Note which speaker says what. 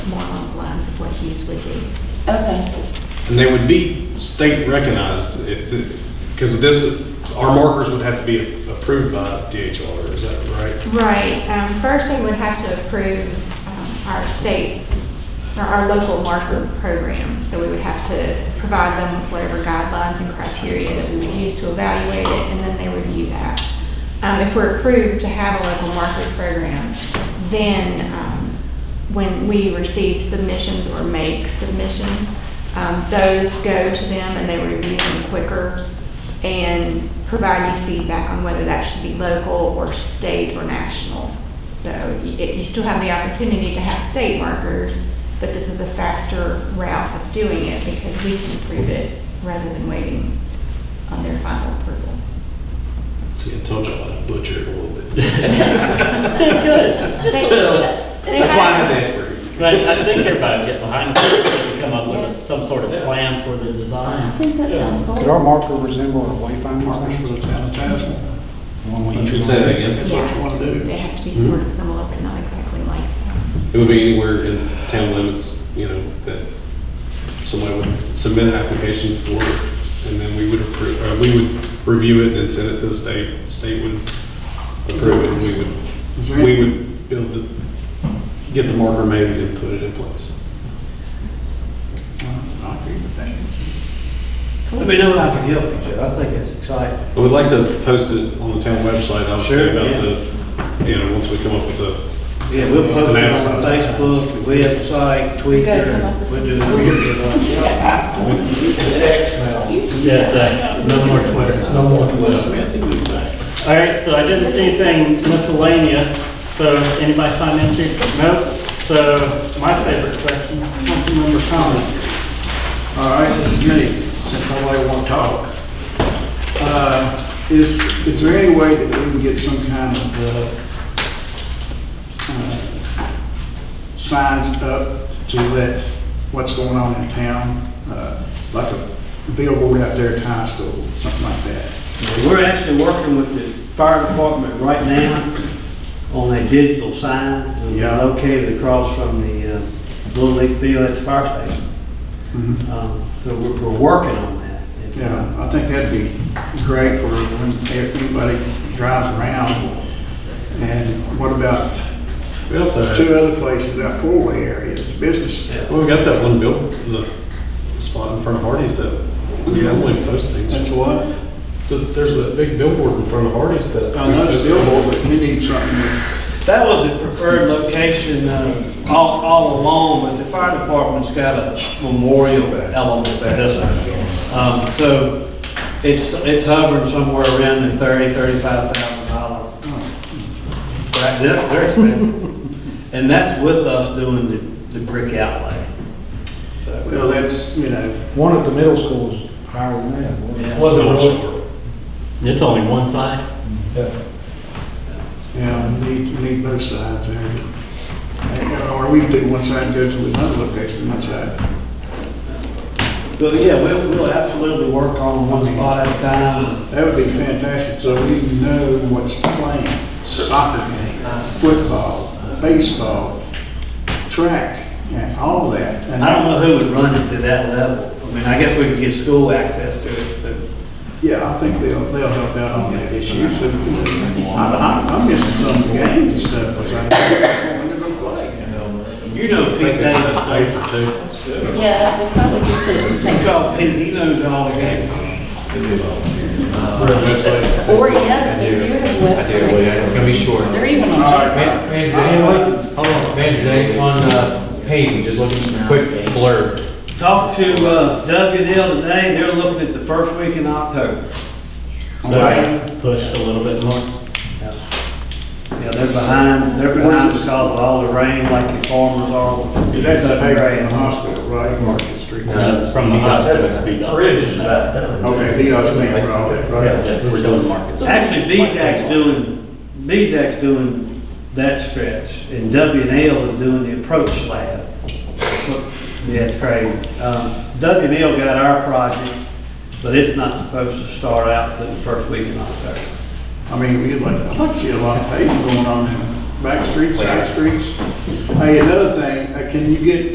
Speaker 1: keys would be.
Speaker 2: Okay,
Speaker 3: And they would be state recognized if, because this, our markers would have to be approved by DHR, is that right?
Speaker 1: Right, um, first they would have to approve, um, our state, or our local marker program. So we would have to provide them with whatever guidelines and criteria that we would use to evaluate it, and then they review that. Um, if we're approved to have a local marker program, then, um, when we receive submissions or make submissions, um, those go to them and they review them quicker and provide you feedback on whether that should be local or state or national. So y- it- you still have the opportunity to have state markers, but this is a faster route of doing it because we can approve it rather than waiting on their final approval.
Speaker 3: See, I told y'all I butchered a little bit.
Speaker 4: Good.
Speaker 2: just a little bit.
Speaker 1: They
Speaker 3: That's why I
Speaker 1: have-
Speaker 3: had to ask for it.
Speaker 4: But I think everybody would get behind it, come up with some sort of plan for the
Speaker 2: I
Speaker 4: design.
Speaker 2: think that sounds
Speaker 5: Did
Speaker 2: cool.
Speaker 5: our marker resemble our wayfinding
Speaker 6: Markers for
Speaker 5: markers?
Speaker 6: the town of Tazewell.
Speaker 3: Say that again.
Speaker 6: That's what you want to
Speaker 1: They
Speaker 6: do.
Speaker 1: have to be
Speaker 3: Mm-hmm.
Speaker 1: sort of similar, but not exactly like.
Speaker 3: It would be anywhere in town limits, you know, that somebody would submit an application for it, and then we would approve, uh, we would review it and send it to the state. State would approve it, and we
Speaker 5: Is
Speaker 3: would,
Speaker 5: there-
Speaker 3: we would build the, get the marker made and put it in place.
Speaker 6: I agree with that.
Speaker 7: Let me know how I can help you, Joe. I think it's exciting.
Speaker 3: I would like to post it on the town website, obviously,
Speaker 7: Sure,
Speaker 3: about
Speaker 7: yeah.
Speaker 3: the, you know, once we come up with the,
Speaker 7: Yeah, we'll post it on Facebook, website,
Speaker 2: You gotta come up
Speaker 7: Twitter.
Speaker 2: with
Speaker 7: We'll do it.
Speaker 4: Yeah, thanks. uh, No more questions. No more questions. All right, so I didn't see anything miscellaneous, so anybody sign in to? Nope. So my favorite section, council member comments.
Speaker 6: All right, this is me, since nobody want to talk. Uh, Is, is there any way that we can get some kind of uh, uh, signs up to let what's going on in town? uh, Like a billboard out there at high school, something like that.
Speaker 7: We're actually working with the fire department right now on a digital sign. that we
Speaker 6: Yeah.
Speaker 7: Located across from the uh, Little League Field at the fire station.
Speaker 6: Mhm.
Speaker 7: Um, So we're, we're working on that. And,
Speaker 6: Yeah, I think that'd be great for when if anybody drives around. And what about
Speaker 3: we also had.
Speaker 6: two other places, that four-way areas, business?
Speaker 7: Yeah.
Speaker 3: Well, we got that one built, the spot in front of Hardee's that we only post things. Th-
Speaker 6: what?
Speaker 3: There's that big billboard in front of Hardee's that.
Speaker 6: I know Oh, it's billboard, but we need something. that-
Speaker 7: That was a preferred location um, all, all along, but the fire department's got a memorial element there. Um, So it's, it's hovering somewhere around the thirty, thirty-five thousand dollar. Right, they're, they're expensive. And that's with us doing the, the brick outlay. So,
Speaker 6: Well, that's, you know,
Speaker 5: One at the middle school is higher than that. wasn't it?
Speaker 7: yeah.
Speaker 4: It's only one side?
Speaker 6: yeah, we need, we need both sides there. Or we can do one side and go to another location, one side.
Speaker 7: But yeah, we'll, we'll absolutely work on one spot at a time.
Speaker 6: That would be fantastic, so we know what's playing, soccer game, football, baseball, track, and all that. And
Speaker 7: I don't know who would run it to that level. I mean, I guess we could give school access to it, so.
Speaker 6: Yeah, I think they'll, they'll help out on that issue, so, I'm, I'm, I'm missing some games and stuff, because I don't know when they're gonna play.
Speaker 7: You know Pete Davis,
Speaker 3: for two.
Speaker 2: Yeah, they probably do
Speaker 7: don't you? You call Pete, he knows all the games.
Speaker 2: that. Or yes, they do have websites.
Speaker 8: It's gonna be short.
Speaker 2: They're even on
Speaker 6: All right,
Speaker 2: Facebook.
Speaker 8: Manager Dave, hold on, Manager Dave, on, uh, page, just look at a quick blurb.
Speaker 7: Talked to uh, Doug and Dale today, they're looking at the first week in October.
Speaker 6: Right.
Speaker 4: So pushed a little bit more.
Speaker 7: Yeah, they're behind, they're behind because of all the rain like your farmers are.
Speaker 6: That's a paper in the hospital, right, Market Street?
Speaker 4: Uh, From the hospital to be done.
Speaker 6: Okay, he was paying for all that, right?
Speaker 4: Yeah, We're doing markets.
Speaker 7: Actually, BZAC's doing, BZAC's doing that stretch, and W and L is doing the approach slab. Yeah, it's crazy. Um, W and L got our project, but it's not supposed to start out till the first week in October.
Speaker 6: I mean, we'd like, I'd like to see a lot of paving going on in back streets, side streets. Hey, another thing, uh, can you get